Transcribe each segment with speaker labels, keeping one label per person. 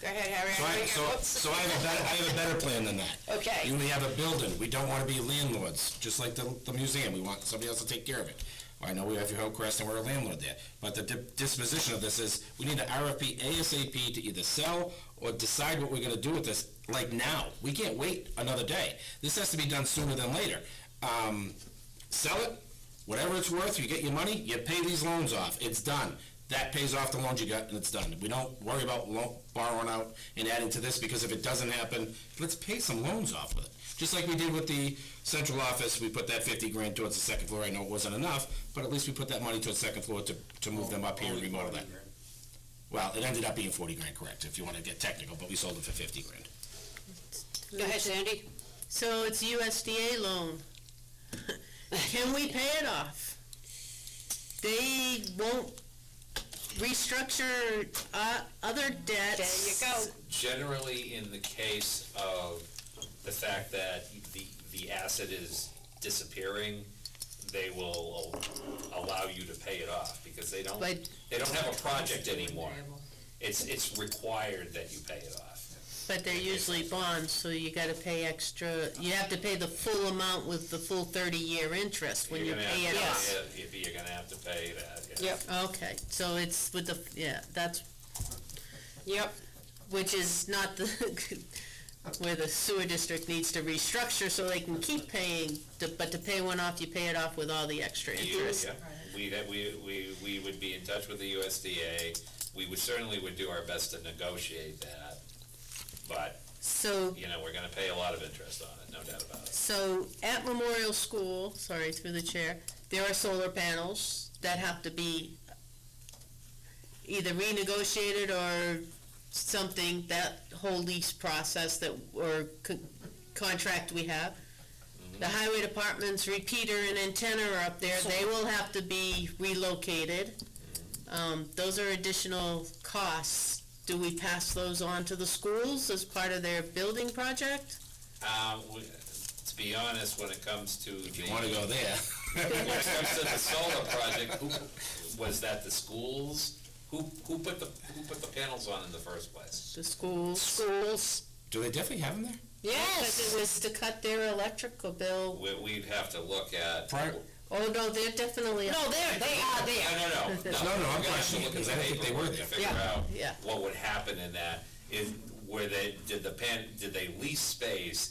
Speaker 1: Go ahead, Harry.
Speaker 2: So I, so,
Speaker 1: Whoops.
Speaker 2: so I have a better, I have a better plan than that.
Speaker 1: Okay.
Speaker 2: We have a building, we don't wanna be landlords, just like the, the museum, we want somebody else to take care of it. I know we have Hillcrest and we're a landlord there, but the di- disposition of this is, we need an RFP ASAP to either sell or decide what we're gonna do with this, like now. We can't wait another day. This has to be done sooner than later. Um, sell it, whatever it's worth, you get your money, you pay these loans off, it's done. That pays off the loans you got, and it's done. We don't worry about lo- borrowing out and adding to this, because if it doesn't happen, let's pay some loans off with it. Just like we did with the central office, we put that fifty grand towards the second floor, I know it wasn't enough, but at least we put that money towards second floor to, to move them up here and remodel that. Well, it ended up being forty grand, correct, if you wanna get technical, but we sold it for fifty grand.
Speaker 1: Go ahead, Sandy.
Speaker 3: So it's USDA loan. Can we pay it off? They won't restructure uh, other
Speaker 1: There
Speaker 3: debts.
Speaker 1: you go.
Speaker 4: Generally, in the case of the fact that the, the asset is disappearing, they will al- allow you to pay it off, because they don't,
Speaker 3: But-
Speaker 4: they don't have a project anymore. It's, it's required that you pay it off.
Speaker 3: But they're usually bonds, so you gotta pay extra, you have to pay the full amount with the full thirty-year interest when you
Speaker 4: You're gonna
Speaker 3: pay
Speaker 4: have
Speaker 3: it
Speaker 4: to
Speaker 3: off.
Speaker 4: pay it, You're gonna have to pay that, yeah.
Speaker 1: Yep,
Speaker 3: Okay, so it's with the, yeah, that's,
Speaker 1: yep.
Speaker 3: which is not the, where the sewer district needs to restructure so they can keep paying, to- but to pay one off, you pay it off with all the extra
Speaker 4: You-
Speaker 3: interest.
Speaker 4: yeah. We, that, we, we, we would be in touch with the USDA, we would, certainly would do our best to negotiate that, but,
Speaker 3: So,
Speaker 4: you know, we're gonna pay a lot of interest on it, no doubt about it.
Speaker 3: so at Memorial School, sorry, through the chair, there are solar panels that have to be either renegotiated or something, that whole lease process that, or con- contract we have. The highway department's repeater and antenna are up there, they will have to be relocated. Um, those are additional costs. Do we pass those on to the schools as part of their building project?
Speaker 4: Um, we- to be honest, when it comes to the,
Speaker 2: You wanna
Speaker 4: when
Speaker 2: go there?
Speaker 4: it comes to the solar project, who, was that the schools? Who, who put the, who put the panels on in the first place?
Speaker 3: The schools?
Speaker 1: Schools.
Speaker 2: Do they definitely have them there?
Speaker 3: Because
Speaker 1: Yes.
Speaker 3: it was to cut their electrical bill.
Speaker 4: We, we'd have to look at.
Speaker 2: Prior-
Speaker 3: Oh, no, they're definitely.
Speaker 1: No, there, they are
Speaker 4: No,
Speaker 1: there.
Speaker 2: No, no,
Speaker 4: no, no.
Speaker 2: I'm
Speaker 4: we're gonna have to
Speaker 2: questioning it,
Speaker 4: look at
Speaker 2: 'cause
Speaker 4: the
Speaker 2: I don't think they were
Speaker 4: paperwork to
Speaker 2: there.
Speaker 4: Figure
Speaker 1: Yeah,
Speaker 4: out
Speaker 3: yeah.
Speaker 4: what would happen in that, if, were they, did the pan, did they lease space?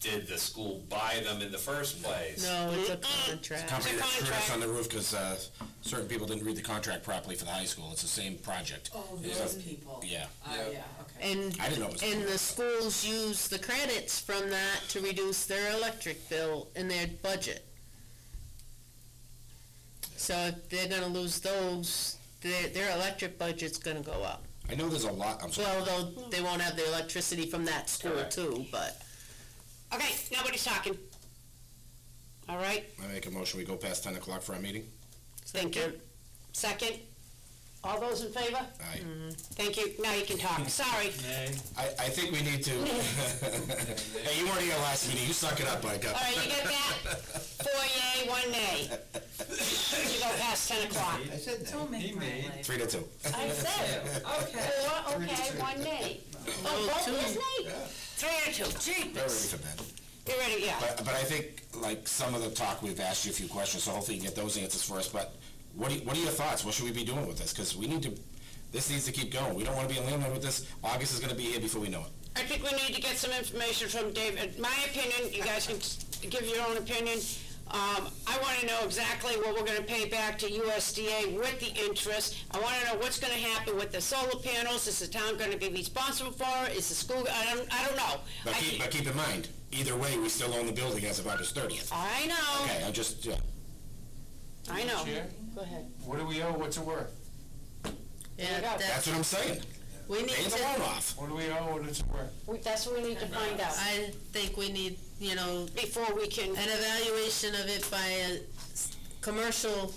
Speaker 4: Did the school buy them in the first place?
Speaker 3: No, it's a contract.
Speaker 2: company
Speaker 1: It's a
Speaker 2: that threw us
Speaker 1: contract.
Speaker 2: on the roof because uh, certain people didn't read the contract properly for the high school. It's the same project.
Speaker 5: Oh, those people.
Speaker 2: Yeah,
Speaker 5: Oh, yeah, okay.
Speaker 3: And,
Speaker 2: I didn't know it was.
Speaker 3: and the schools use the credits from that to reduce their electric bill in their budget. So if they're gonna lose those, their, their electric budget's gonna go up.
Speaker 2: I know there's a lot. I'm sorry.
Speaker 3: Well, though, they won't have the electricity from that school
Speaker 4: Correct.
Speaker 3: too, but.
Speaker 1: Okay, nobody's talking. All right,
Speaker 2: I make a motion. We go past ten o'clock for our meeting.
Speaker 1: thank you. Second. All those in favor?
Speaker 2: Aye.
Speaker 1: Mm. Thank you. Now you can talk. Sorry.
Speaker 2: I, I think we need to. hey, you weren't here last meeting. You suck it up, I
Speaker 1: All right, you get that? Four yay, one nay. You go past ten o'clock.
Speaker 6: I said that.
Speaker 5: Don't
Speaker 6: He
Speaker 5: make my
Speaker 6: made-
Speaker 5: life.
Speaker 2: Three to two.
Speaker 1: I said,
Speaker 5: Okay.
Speaker 1: four, okay, one nay. Oh,
Speaker 3: two.
Speaker 1: vote was nay? Three or two,
Speaker 2: We're ready
Speaker 1: jeepers.
Speaker 2: for bed.
Speaker 1: You ready, yeah.
Speaker 2: But, but I think, like, some of the talk, we've asked you a few questions, so hopefully you get those answers for us, but what, do- what are your thoughts? What should we be doing with this? Because we need to, this needs to keep going. We don't want to be in landlord with this. August is going to be here before we know it.
Speaker 1: I think we need to get some information from David. My opinion, you guys can s- give your own opinion. Um, I want to know exactly what we're going to pay back to USDA with the interest. I want to know what's going to happen with the solar panels. Is the town going to be responsible for it? Is the school, I don't, I don't know.
Speaker 2: But
Speaker 1: I
Speaker 2: keep,
Speaker 1: keep-
Speaker 2: but keep in mind, either way, we still own the building as of August thirtieth.
Speaker 1: I know,
Speaker 2: Okay, I just, yeah.
Speaker 1: I know.
Speaker 3: Go ahead.
Speaker 6: What do we owe, what's it worth?
Speaker 3: Yeah,
Speaker 1: you go.
Speaker 3: that,
Speaker 2: that's what I'm saying.
Speaker 3: we need
Speaker 2: Pay the
Speaker 3: to.
Speaker 2: loan off.
Speaker 6: What do we owe, what is it worth?
Speaker 1: We- That's what we need to find out
Speaker 3: I think we need, you know,
Speaker 1: before we can,
Speaker 3: an evaluation of it by a s- commercial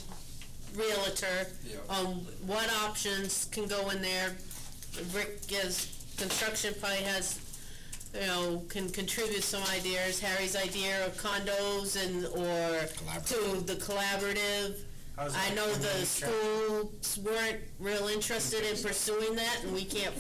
Speaker 3: realtor
Speaker 6: Yeah.
Speaker 3: on what options can go in there. Rick is, construction probably has, you know, can contribute some ideas, Harry's idea of condos and, or to
Speaker 2: Collaborative.
Speaker 3: the collaborative.
Speaker 6: How's
Speaker 3: I
Speaker 6: that
Speaker 3: know
Speaker 6: coming
Speaker 3: the
Speaker 6: in check?
Speaker 3: schools weren't real interested in pursuing that, and we can't